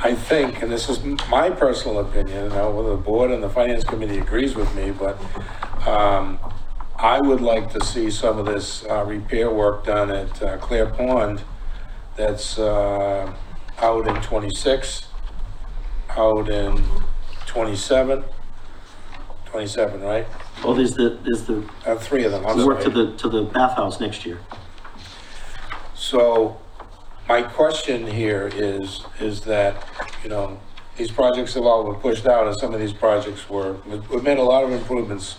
I think, and this is my personal opinion, now whether the board and the finance committee agrees with me, but um, I would like to see some of this uh, repair work done at uh, Clear Pond that's uh, out in 26, out in 27, 27, right? Well, there's the, there's the Uh, Three of them, I'm the work to sorry. the, to the bathhouse next year. So my question here is, is that, you know, these projects have all been pushed out and some of these projects were, we've made a lot of improvements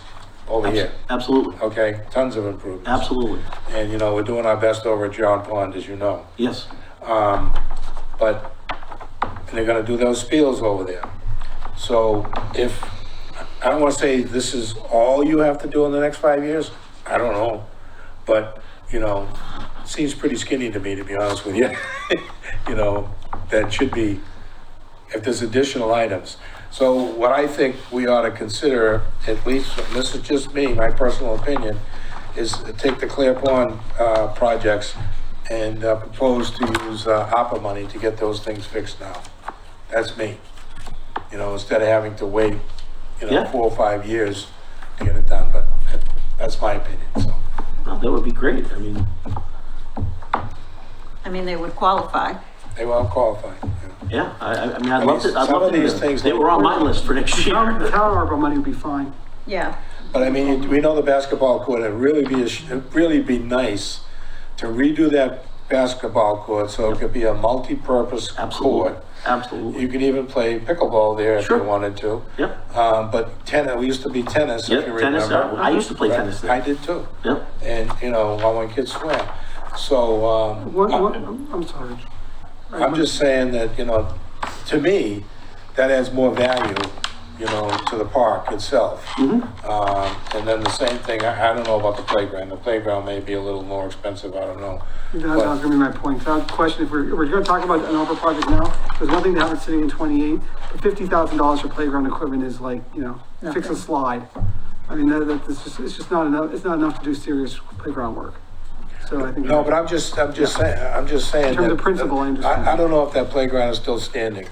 over here, Absolutely, okay? Tons of improvements. absolutely, And, you know, we're doing our best over at John Pond, as you know. yes. Um, but they're gonna do those spiels over there. So if, I don't wanna say this is all you have to do in the next five years, I don't know. But, you know, seems pretty skinny to me, to be honest with you. You know, that should be, if there's additional items. So what I think we ought to consider, at least, and this is just me, my personal opinion, is to take the Clear Pond, uh, projects and uh, propose to use, uh, APA money to get those things fixed now. That's me. You know, instead of having to wait, you know, Yeah. four or five years to get it done, but that- that's my opinion, so. No, Uh, That would be great, I mean, I mean, they would qualify. They were all qualified, yeah. yeah, I, I I mean, I'd love to, I'd Some love of to do these that. things- They were on my list for next Town, year. town ARPA money would be fine. Yeah. But I mean, we know the basketball court, it'd really be, a sh- it'd really be nice to redo that basketball court so it could be a multi-purpose Absolutely, court. You absolutely, could even play pickleball there if you Sure. wanted to. yep, Um, but tennis, we used to be tennis, if yep, you tennis, I remember. I used to play Right? tennis I there, did too. yep. And, you know, while my kids swam. So, um. What, I- what, I'm sorry. I'm just saying that, you know, to me, that adds more value, you know, to the park itself. Um, and then the same thing, I, I don't know about the playground, the playground may be a little more expensive, I don't know. That that was gonna be my point. That question, if we're, if we're gonna talk about an ARPA project now, there's one thing to have it sitting in twenty-eight, but fifty thousand dollars for playground equipment is like, you know, fix a Nothing. slide. I mean, that, that's just, it's just not enough, it's not enough to do serious playground work. So I think. No, but I'm just, I'm just saying, I'm just saying. terms of that- principle, I understand. I, I don't know if that playground is still standing.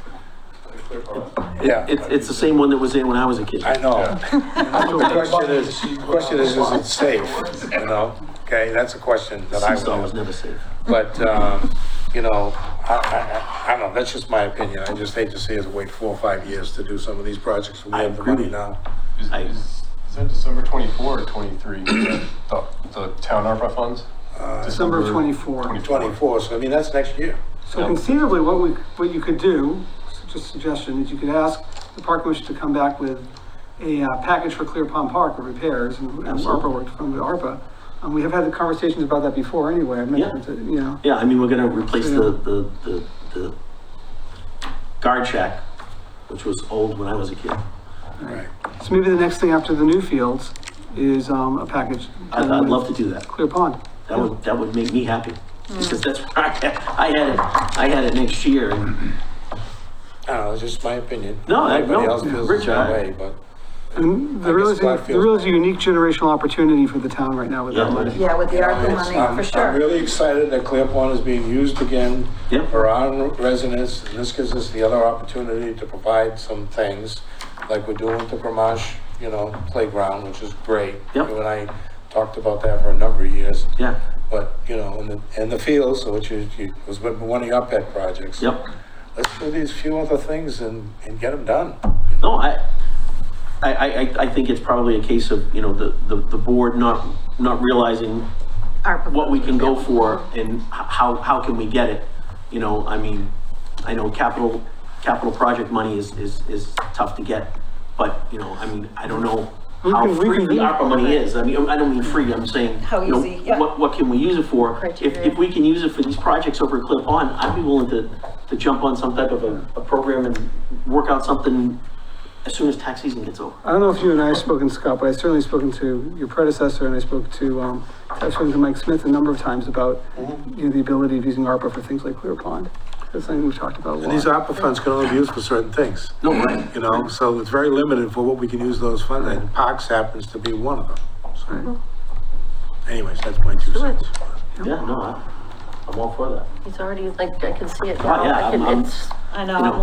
Yeah, It's, it's the same one that was there when I was a kid. I know. The question is, the question is, is it safe, you know? Okay, that's a question that I would Seesaw have. was never safe. But, um, you know, I, I- I, I don't know, that's just my opinion. I just hate to see us wait four or five years to do some of these projects. We I have the agree. money now. Is, I- is, is that December twenty-four or twenty-three, the, the town ARPA funds? Uh, December of twenty-four. 24. Twenty-four, so I mean, that's next year. So conceivably, what we, what you could do, s- just suggestion, is you could ask the park commission to come back with a uh, package for Clear Pond Park of repairs and and ARPA work from the ARPA. And we have had the conversations about that before anyway, I mentioned, it, you know, Yeah, I mean, we're gonna replace the, Mm. the, the, the guard shack, which was old when I was a kid. Right. so maybe the next thing after the new fields is um, a package. I'd, I'd love to do that. Clear Pond. That would, that would make me happy, because that's where I had, I had it, I had it next year, and I don't know, it's just my opinion. No, I- Everybody no, else feels the Rich, same I- way, but And I there guess really is, Scott a- there really is a unique generational opportunity for the town right now with that Yeah. money. Yeah, with the ARPA Uh, it's- money, I'm, for I'm sure. really excited that Clear Pond is being used again Yep. for our residents. And this gives us the other opportunity to provide some things like we're doing with the Gamache, you know, playground, which is great. Yep. You and I talked about that for a number of years. yeah, But, you know, in the, in the fields, which is, you- was one of your pet projects. yep. Let's do these few other things and, and get them done. No, I, I, I, I- I think it's probably a case of, you know, the, the, the board not, not realizing ARPA. what we can go for and h- how, how can we get it? You know, I mean, I know capital, capital project money is, is, is tough to get, but, you know, I mean, I don't know how can- we free can the do- ARPA money is. I mean, I don't mean free, I'm saying, How you know, easy, yeah. what, what can we use it for? If, Criteria. if we can use it for these projects over at Clip On, I'd be willing to, to jump on some type of a, a program and work out something as soon as tax season gets over. I don't know if you and I have spoken, Scott, but I've certainly spoken to your predecessor and I spoke to, um, I've spoken to Mike Smith a number of times about, Mm-hmm. you know, the ability of using ARPA for things like Clear Pond. That's something we've talked about a And these lot. ARPA funds can only be used for certain things, No, right? you know, so it's very limited for what we can use those funds, and parks happens to be one of them. Right. Mm-hmm. Anyways, that's my two Do it. cents. Yeah, no, I- I'm all for that. He's already, like, I can see it Oh, yeah, now. I can- I'm- I'm- It's I you know, know, I'm